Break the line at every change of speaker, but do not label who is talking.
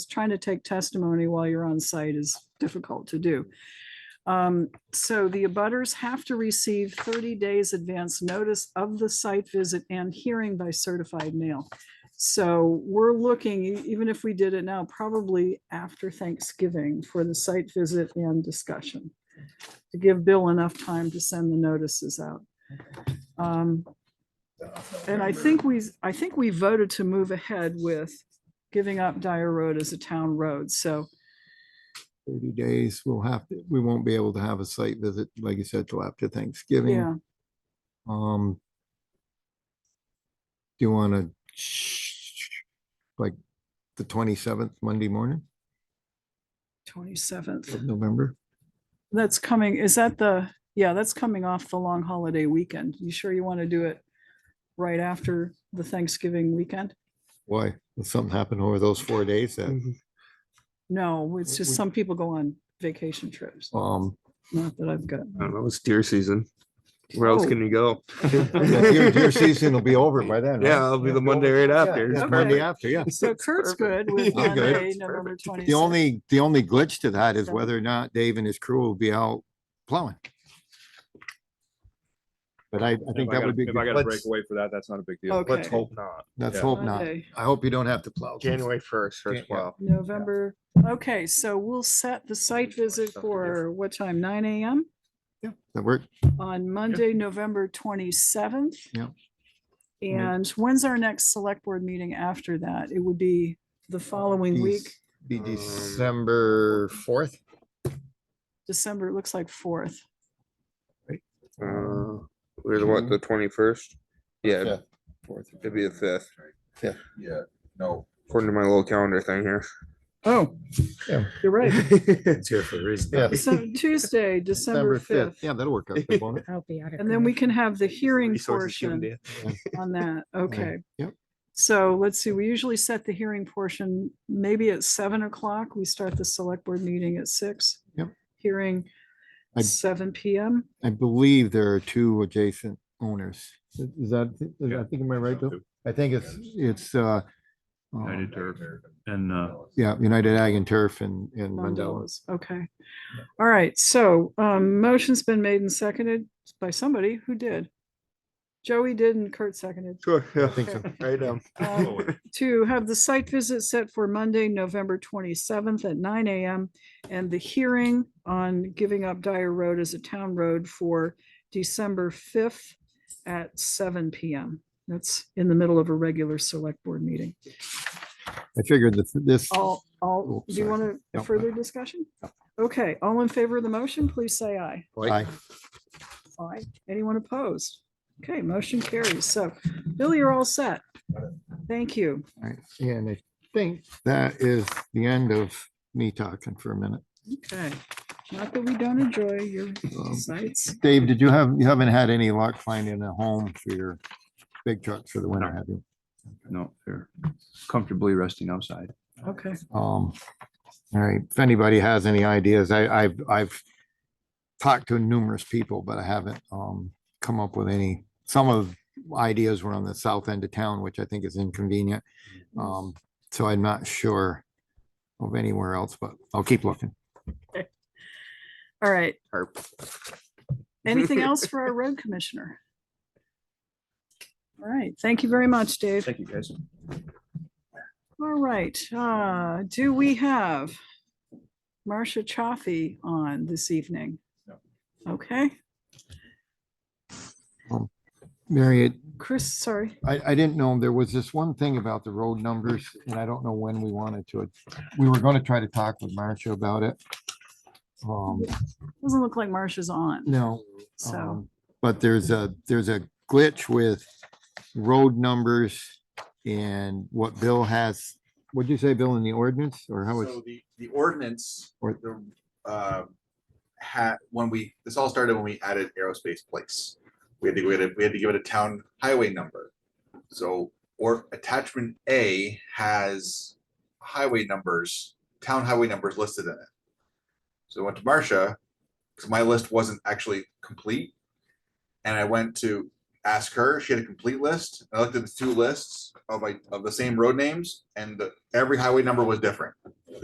trying to take testimony while you're on site is difficult to do. Um, so the abutters have to receive thirty days advance notice of the site visit and hearing by certified mail. So we're looking, e- even if we did it now, probably after Thanksgiving for the site visit and discussion. To give Bill enough time to send the notices out. Um, and I think we, I think we voted to move ahead with giving up Dyer Road as a town road, so.
thirty days, we'll have, to. we won't be able to have a site visit, like you said, till after Thanksgiving.
Yeah,
Um. Do you wanna, like, the twenty-seventh, Monday morning
twenty-seventh.
of November?
That's coming, is that the, yeah, that's coming off the long holiday weekend. You sure you want to do it right after the Thanksgiving weekend?
Why? Will something happen over those four days that,
No, it's just
We-
some people go on vacation trips,
um,
not that I've got.
Oh.
I don't know, it's deer season. Where else
Oh.
can you go?
yeah, deer, deer season will be over by then. right?
Yeah, it'll be the Monday right
Yeah,
after.
yeah,
It's
Monday
perfect.
after, yeah.
So Kurt's
perfect.
good with
I'm good.
Monday,
It's
November
perfect.
twenty-sixth.
The only, the only glitch to that is
Yeah.
whether or not Dave and his crew will be out plowing. But I, I
If
think
I
that
gotta-
would be.
If
good.
I gotta break
Let's-
away for that, that's not a big deal.
Okay.
Let's hope not.
Let's
Yeah.
hope not.
Monday.
I hope you don't have to plow.
January first,
Yeah,
first
yeah.
well.
November, okay, so we'll set the site visit
Stuff to do.
for what time, nine AM
That work?
on Monday, November twenty-seventh?
Yeah.
And when's our next select board meeting after that? It would be the following week,
Be
Um,
December fourth.
December, it looks like fourth.
Uh, There's what, the twenty-first? Yeah, it'd be the fifth,
Yeah, no.
according to my little calendar thing here.
Oh,
Yeah.
you're right.
It's here for a
Yeah.
reason.
So Tuesday, December fifth.
Yeah, that'll work out. good, won't it?
I'll be out of.
And then we can have the hearing
Resources given to
portion
you.
on that. Okay.
Yep.
So let's see, we usually set the hearing portion maybe at seven o'clock. We start the select board meeting at six.
Yep.
Hearing
I-
seven PM.
I believe there are two adjacent owners. Is that, is- I think, am I right, Bill? I think it's, it's, uh, uh,
United Turf and, uh,
yeah, United Ag and Turf and, and
Mandela's.
Mandela's.
Okay. All right. So um, motion's been made and seconded by somebody who did. Joey did and Kurt seconded.
Sure, yeah.
think so.
Right, um,
Um, to have the site visit set for Monday, November twenty-seventh at nine AM and the hearing on giving up Dyer Road as a town road for December fifth at seven PM. That's in the middle of a regular select board meeting.
I figured that this,
All, all,
Oh,
do you
sorry.
want a
No.
further discussion? Okay, all in favor of the motion, please say aye.
I,
Aye. Anyone opposed? Okay, motion carries. So Bill, you're all set. Thank you.
Alright, And I think that is the end of me talking for a minute.
Okay, not that we don't enjoy your
Um,
sites.
Dave, did you have, you haven't had any luck finding a home for your big truck for the winter, have you?
No, they're comfortably resting outside.
Okay,
Um, all right, if anybody has any ideas, I, I've, I've talked to numerous people, but I haven't, um, come up with any, some of ideas were on the south end of town, which I think is inconvenient. Um, so I'm not sure of anywhere else, but I'll keep looking.
all right.
Harp.
Anything else for our road commissioner? All right, thank you very much, Dave.
Thank you, guys.
All right, uh, do we have Marcia Chaffee on this evening?
No.
Okay,
Mary, it-
Chris, sorry.
I, I didn't know, there was this one thing about the road numbers, and I don't know when we wanted to, we were gonna try to talk with Marcia about it. Um,
Doesn't look like Marcia's on,
no,
so,
um, But there's a, there's a glitch with road numbers and what Bill has, what'd you say, Bill, in the ordinance, or how it's,
So the, the ordinance,
Or-
the, uh, had, when we, this all started when we added aerospace place. We had to, we had to, we had to give it a town highway number. So, or attachment A has highway numbers, town highway numbers listed in it. So I went to Marcia, because my list wasn't actually complete. And I went to ask her, she had a complete list. I looked at the two lists of like, of the same road names and the- every highway number was different.